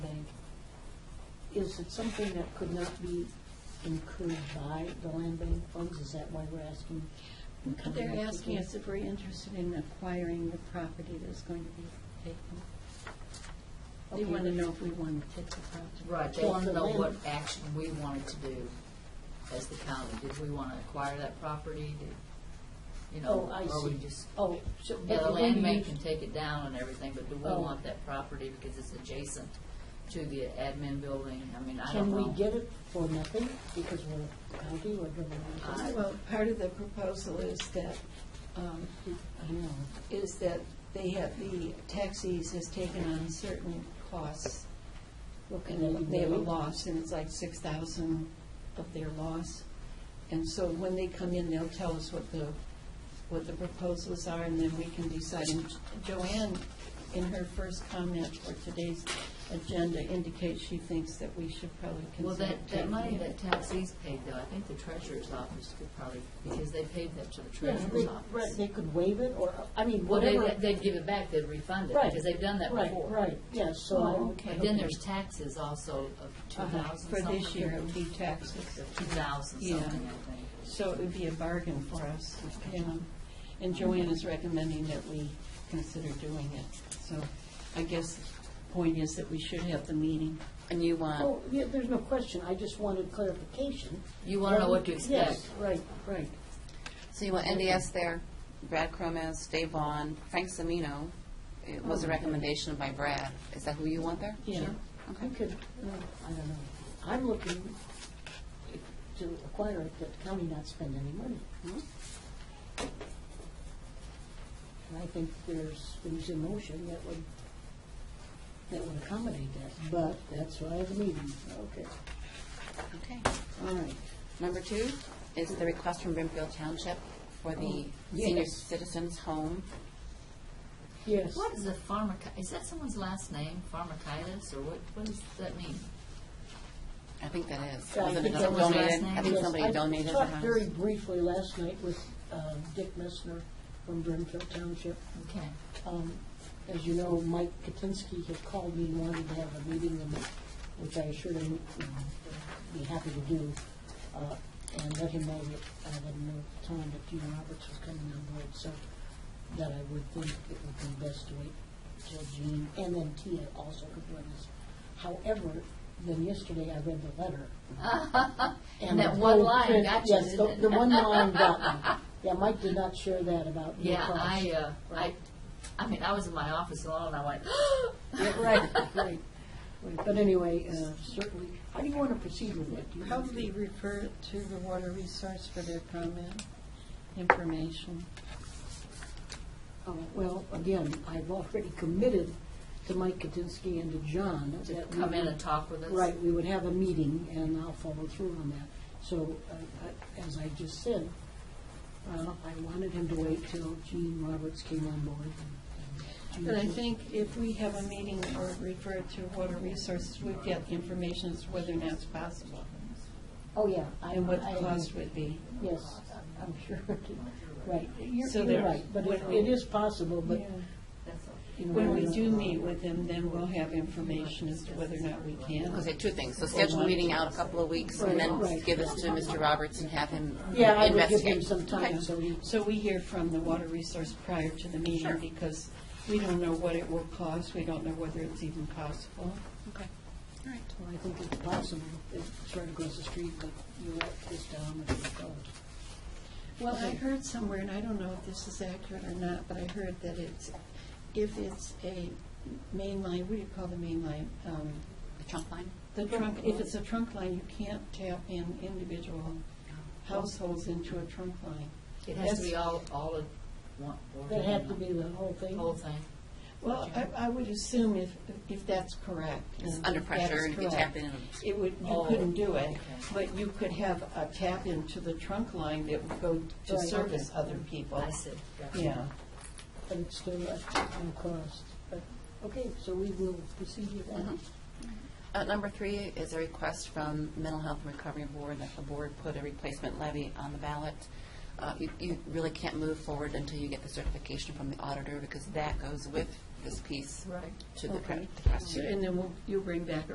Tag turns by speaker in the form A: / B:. A: Is it something that could not be incurred by the land bank funds? Is that why we're asking? and coming up
B: They're
A: with
B: asking
A: this?
B: us if we're interested in acquiring the property that's going to be taken. They
A: Okay.
B: want to know if we want to take the property.
C: Right, they
A: Well,
C: want
A: the
C: to know what
A: land-
C: action we wanted to do as the county. Did we want to acquire that property? Did, you know,
A: Oh, I
C: or we
A: see.
C: just,
A: Oh, so.
C: yeah,
A: but
C: the
A: when
C: land
A: you-
C: bank can take it down and everything, but do we
A: Oh.
C: want that property because it's adjacent to the admin building? I mean, I don't
A: Can
C: know.
A: we get it for nothing because we're county or government?
C: I-
D: Well, part of the proposal is that, um,
A: I know.
D: is that they have, the taxis has taken on certain costs.
A: Well, can
D: And
A: be
D: they have a
C: Mm-hmm.
A: waived?
D: loss, and it's like six thousand of their loss. And so when they come in, they'll tell us what the, what the proposals are, and then we can decide. And Joanne, in her first comment for today's agenda, indicates she thinks that we should probably
C: Well,
D: consider
C: that, that
D: taking
C: money
D: it.
C: that taxis paid though, I think the treasurer's office could probably, because they paid that to the
A: Yeah,
C: treasurer's
A: they-
C: office.
A: Right, they could waive it or, I mean,
C: Well, they,
A: whatever.
C: they'd give it back, they'd refund it,
A: Right,
C: because they've done that
A: Right,
C: before.
A: right, yeah, so.
D: Oh,
A: I-
D: okay.
C: But then there's taxes also of two
D: Uh-huh.
C: thousand
D: For
C: something.
D: this year, it would be taxes.
C: Two thousand
D: Yeah.
C: something, I think.
D: So it would be a bargain for us, you know. And Joanne is recommending that we consider doing it. So I guess the point is that we should have the meeting. And you want,
A: Oh, yeah, there's no question, I just wanted clarification.
C: You want to know what to expect.
A: Yes, right, right.
E: So you want NDS there, Brad Cromes, Dave Vaughn, Frank Semino. It
C: Oh,
E: was a recommendation by Brad. Is that who you want there?
D: yeah,
A: You could, no, I don't know. I'm looking to acquire it, but the county not spend any money.
E: Mhm.
A: And I think there's things in motion that would, that would accommodate that, but that's why I have a meeting. Okay.
E: Okay.
A: All right.
E: Number two is the request from Brimfield Township for the
A: Oh,
E: senior
A: yes.
E: citizens home.
A: Yes.
C: What is a pharmaci, is that someone's last name, pharmacitis, or what, what does that mean?
E: I think that is.
A: Yeah, I
E: Was it
A: think
E: a
A: that was last
E: donated?
C: night.
E: I think
A: Yes,
E: somebody donated the
A: I talked very
E: house.
A: briefly last night with uh, Dick Messner from Brimfield Township.
C: Okay.
A: Um, As you know, Mike Katinsky had called me and wanted to have a meeting, and- which I assured him um, would be happy to do, uh, and let him know that I didn't know at the time that Gene Roberts was coming on board, so that I would think it would be best to wait till Gene, and then Tia also could join us. However, then yesterday I read the letter,
C: And
A: the
C: that one
A: whole
C: line
A: print-
C: got you,
A: Yes, the,
C: didn't
A: the
C: it?
A: one line got me. Yeah, Mike did not share that about Blue
C: Yeah,
A: Cross.
C: I, uh, I, I mean, I was in my office alone, and I went,
A: Yeah, Right, right. Right, But anyway, uh, certainly, how do you want to proceed with it? Do you-
D: probably refer it to the water resource for their comment, information.
A: Oh, Well, again, I've already committed to Mike Katinsky and to John.
C: to
A: that we
C: come in
A: would-
C: and talk with us.
A: Right, we would have a meeting, and I'll follow through on that. So, uh, I- as I just said, uh, I wanted him to wait till Gene Roberts came on board. and- and Gene
D: But I
A: was-
D: think if we have a meeting or refer it to water resources, we'd get information as to whether or not it's possible
A: Oh, yeah. I-
D: and what
A: I
D: the
A: agree.
D: cost would be.
A: Yes, I'm sure, it is. right. You're
D: So
A: you're
D: there-
A: right, but it it is possible, but.
C: That's all.
A: you know,
D: When we
A: we're
D: do
A: not-
D: meet with them, then we'll have information as to whether or not we can.
E: Okay, two things. So schedule a meeting out a couple of weeks and then
A: Right.
E: give this to Mr. Roberts and have him
A: Yeah, I would give him
E: investigate.
A: some time, so he,
D: So we hear from the water resource prior to the meeting
E: Sure.
D: because we don't know what it will cost, we don't know whether it's even possible.
E: Okay. All right.
A: well, I think it's possible, it's right across the street, but you let this down and it goes.
D: Well, I heard somewhere, and I don't know if this is accurate or not, but I heard that it's, if it's a main line, what do you call the main line? Um,
E: The trunk line?
D: The trunk, if it's a trunk line, you can't tap in individual households into a trunk line.
C: It has to be all, all of one. or
A: That had to be the whole
C: The
A: thing.
C: whole thing.
D: Well, I, I would assume if, if that's correct. and
E: Under
D: if
E: pressure
D: that's
E: and if you
D: correct,
E: tap in.
D: It would, you
C: Oh,
D: couldn't do it,
C: okay.
D: but you could have a tap into the trunk line that would go to
A: Right.
D: service other people.
C: I see. Gotcha.
D: Yeah.
A: But it's still at no cost. But, okay, so we will proceed with that.
D: Uh-huh.
E: Mhm. Uh, Number three is a request from Mental Health and Recovery Board that the board put a replacement levy on the ballot. Uh, You you really can't move forward until you get the certification from the auditor because that goes with this piece
D: Right.
E: to the pre-
D: Okay.
E: the question.
D: So- And then we'll- you bring back